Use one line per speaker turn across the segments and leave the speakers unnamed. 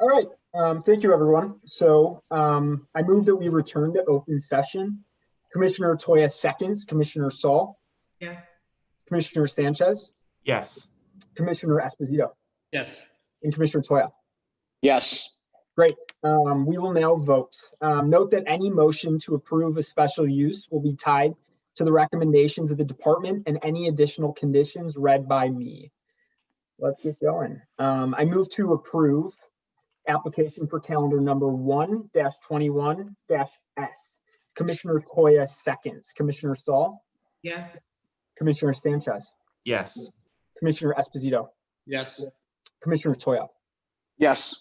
All right, um, thank you, everyone. So, um, I move that we return to open session. Commissioner Toya seconds, Commissioner Saul,
Yes.
Commissioner Sanchez,
Yes.
Commissioner Esposito,
Yes.
and Commissioner Toya.
Yes.
Um, we will now vote. Um, note that any motion to approve a special use will be tied to the recommendations of the department and any additional conditions read by me. Let's get going. Um, I move to approve application for calendar number one dash twenty-one dash S. Commissioner Toya seconds, Commissioner Saul,
Yes.
Commissioner Sanchez,
Yes.
Commissioner Esposito,
Yes.
Commissioner Toya.
Yes.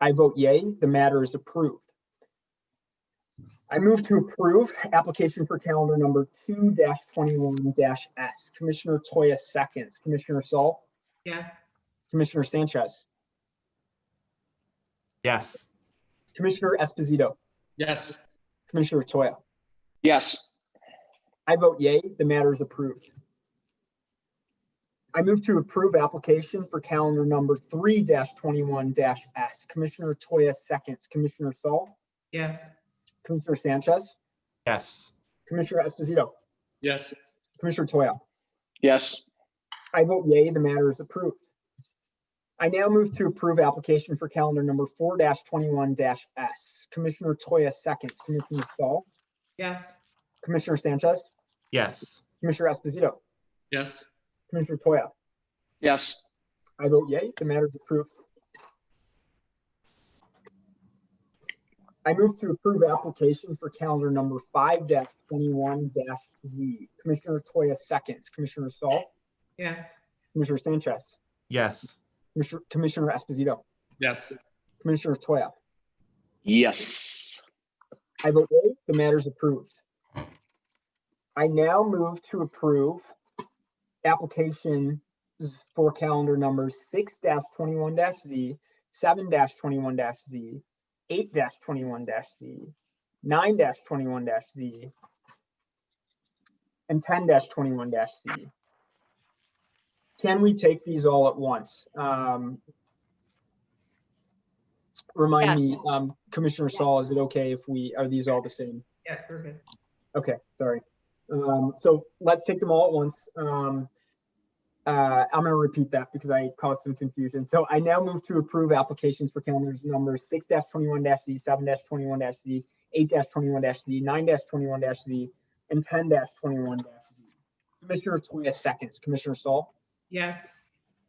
I vote yay, the matter is approved. I move to approve application for calendar number two dash twenty-one dash S. Commissioner Toya seconds, Commissioner Saul,
Yes.
Commissioner Sanchez,
Yes.
Commissioner Esposito,
Yes.
Commissioner Toya.
Yes.
I vote yay, the matter is approved. I move to approve application for calendar number three dash twenty-one dash S. Commissioner Toya seconds, Commissioner Saul,
Yes.
Commissioner Sanchez,
Yes.
Commissioner Esposito,
Yes.
Commissioner Toya.
Yes.
I vote yay, the matter is approved. I now move to approve application for calendar number four twenty-one S. Commissioner Toya seconds, Commissioner Saul,
Yes.
Commissioner Sanchez,
Yes.
Commissioner Esposito,
Yes.
Commissioner Toya.
Yes.
I vote yay, the matter is approved. I move to approve application for calendar number five twenty-one Z. Commissioner Toya seconds, Commissioner Saul,
Yes.
Commissioner Sanchez,
Yes.
Commissioner- Commissioner Esposito,
Yes.
Commissioner Toya.
Yes.
I vote yea, the matter is approved. I now move to approve application for calendar numbers six twenty-one Z, seven twenty-one Z, eight twenty-one Z, nine twenty-one Z, and ten twenty-one Z. Can we take these all at once? Um, Remind me, um, Commissioner Saul, is it okay if we, are these all the same?
Yes, we're good.
Okay, sorry. Um, so let's take them all at once. Um, uh, I'm gonna repeat that because I caused some confusion. So I now move to approve applications for calendars numbers six twenty-one Z, seven twenty-one Z, eight twenty-one Z, nine twenty-one Z, and ten twenty-one Z. Commissioner Toya seconds, Commissioner Saul,
Yes.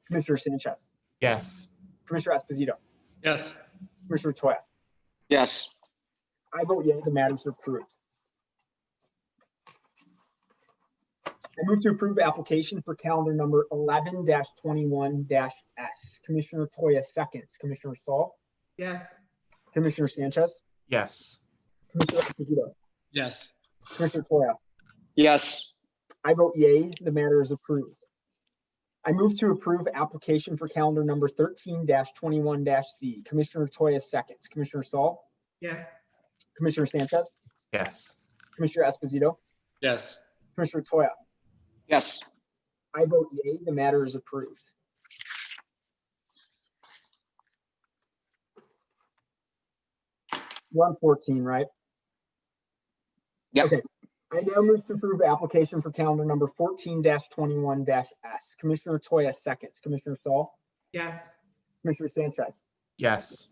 Commissioner Sanchez,
Yes.
Commissioner Esposito,
Yes.
Commissioner Toya.
Yes.
I vote yea, the matters are approved. I move to approve application for calendar number eleven twenty-one S. Commissioner Toya seconds, Commissioner Saul,
Yes.
Commissioner Sanchez,
Yes.
Commissioner Esposito,
Yes.
Commissioner Toya.
Yes.
I vote yea, the matter is approved. I move to approve application for calendar number thirteen twenty-one C. Commissioner Toya seconds, Commissioner Saul,
Yes.
Commissioner Sanchez,
Yes.
Commissioner Esposito,
Yes.
Commissioner Toya.
Yes.
I vote yea, the matter is approved. One fourteen, right?
Yep.
Okay. I now move to approve application for calendar number fourteen twenty-one S. Commissioner Toya seconds, Commissioner Saul,
Yes.
Commissioner Sanchez,
Yes.